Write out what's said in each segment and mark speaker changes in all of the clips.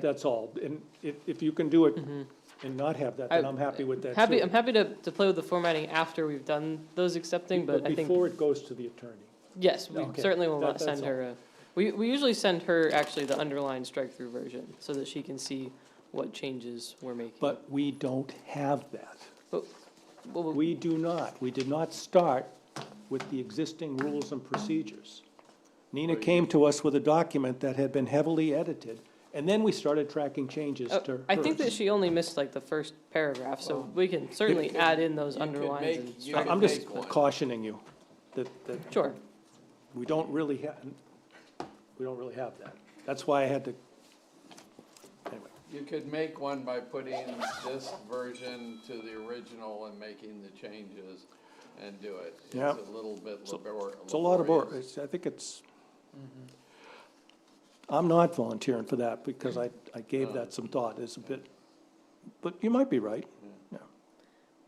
Speaker 1: That's all. And if, if you can do it and not have that, then
Speaker 2: I-
Speaker 1: I'm happy with that
Speaker 2: Mm-hmm. Happy,
Speaker 1: too.
Speaker 2: I'm happy to, to play with the formatting after we've done those accepting, but I think,
Speaker 1: Before it goes to the attorney.
Speaker 2: yes, we
Speaker 1: Okay,
Speaker 2: certainly will
Speaker 1: that-
Speaker 2: not
Speaker 1: that's
Speaker 2: send her a, we, we usually send her actually the underlined strike-through version, so that she can see what changes we're making.
Speaker 1: But we don't have that.
Speaker 2: Well, we-
Speaker 1: We do not. We did not start with the existing rules and procedures. Nina came to us with a document that had been heavily edited, and then we started tracking changes
Speaker 2: uh,
Speaker 1: to hers.
Speaker 2: I think that she only missed like the first paragraph, so we can certainly
Speaker 3: could-
Speaker 2: add in those
Speaker 3: you could
Speaker 2: underlines
Speaker 3: make-
Speaker 2: and
Speaker 3: you
Speaker 2: strike-
Speaker 3: could
Speaker 1: I'm just
Speaker 3: make one.
Speaker 1: cautioning you that, that
Speaker 2: Sure,
Speaker 1: we don't really have, we don't really have that. That's why I had to, anyway.
Speaker 3: You could make one by putting this version to the original and making the changes and do it. It's
Speaker 1: Yeah.
Speaker 3: a little bit
Speaker 1: So-
Speaker 3: labor-
Speaker 1: It's a lot of work,
Speaker 3: laborious.
Speaker 1: It's- I think it's,
Speaker 4: Mm-hmm.
Speaker 1: I'm not volunteering for that, because I, I
Speaker 4: Uh.
Speaker 1: gave that some thought, it's a bit, but you might be right.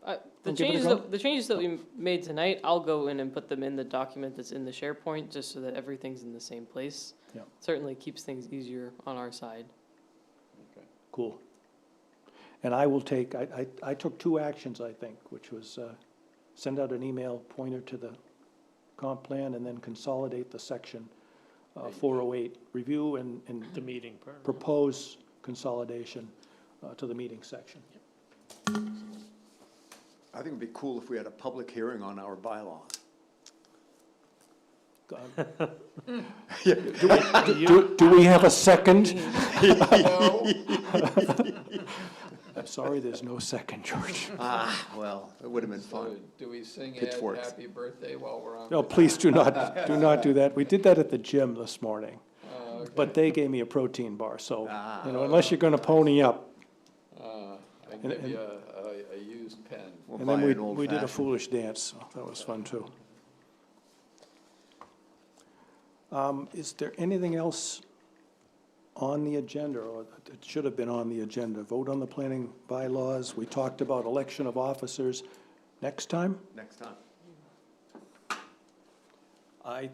Speaker 2: Uh, The
Speaker 1: Wanna give it a
Speaker 2: changes,
Speaker 1: go?
Speaker 2: that- the changes that we made tonight, I'll go in and put them in the document that's in the SharePoint, just so that everything's in the same place.
Speaker 1: Yeah.
Speaker 2: Certainly keeps things easier on our side.
Speaker 1: Cool. And I will take, I, I, I took two actions, I think, which was, uh, send out an email pointer to the comp plan and then consolidate the section, uh, four oh eight, review and, and
Speaker 4: The meeting part.
Speaker 1: propose consolidation, uh, to the meeting section.
Speaker 5: I think it'd be cool if we had a public hearing on our bylaws.
Speaker 1: Um, Do, do- do we have a second?
Speaker 3: No,
Speaker 1: I'm Uh, sorry, there's no second, George.
Speaker 5: Ah, well, it would have been
Speaker 3: so
Speaker 5: fun.
Speaker 3: do we sing Ed
Speaker 5: Pitchforks.
Speaker 3: happy birthday while we're on?
Speaker 1: No, please do not, do not do that. We did that at the gym this morning,
Speaker 3: Uh,
Speaker 1: but they gave me a protein bar, so,
Speaker 5: Ah.
Speaker 1: you know, unless you're gonna pony up.
Speaker 3: uh, I can give
Speaker 1: and-
Speaker 3: you a, a- a used pen.
Speaker 5: We'll
Speaker 1: And
Speaker 5: buy
Speaker 1: then we,
Speaker 5: an old
Speaker 1: we did a
Speaker 5: fashioned.
Speaker 1: foolish dance, so that was fun too. Um, is there anything else on the agenda, or it should have been on the agenda? Vote on the planning bylaws, we talked about election of officers. Next time?
Speaker 5: Next time.
Speaker 1: I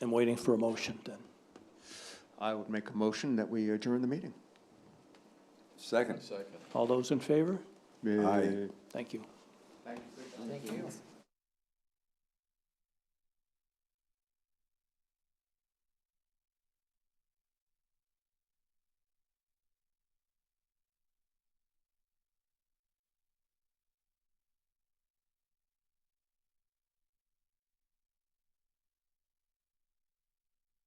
Speaker 1: am waiting for a motion then.
Speaker 5: I would make a motion that we adjourn the meeting.
Speaker 3: One
Speaker 6: Second.
Speaker 3: second.
Speaker 1: All those in favor?
Speaker 5: Aye.
Speaker 1: Thank you.
Speaker 3: Thank you.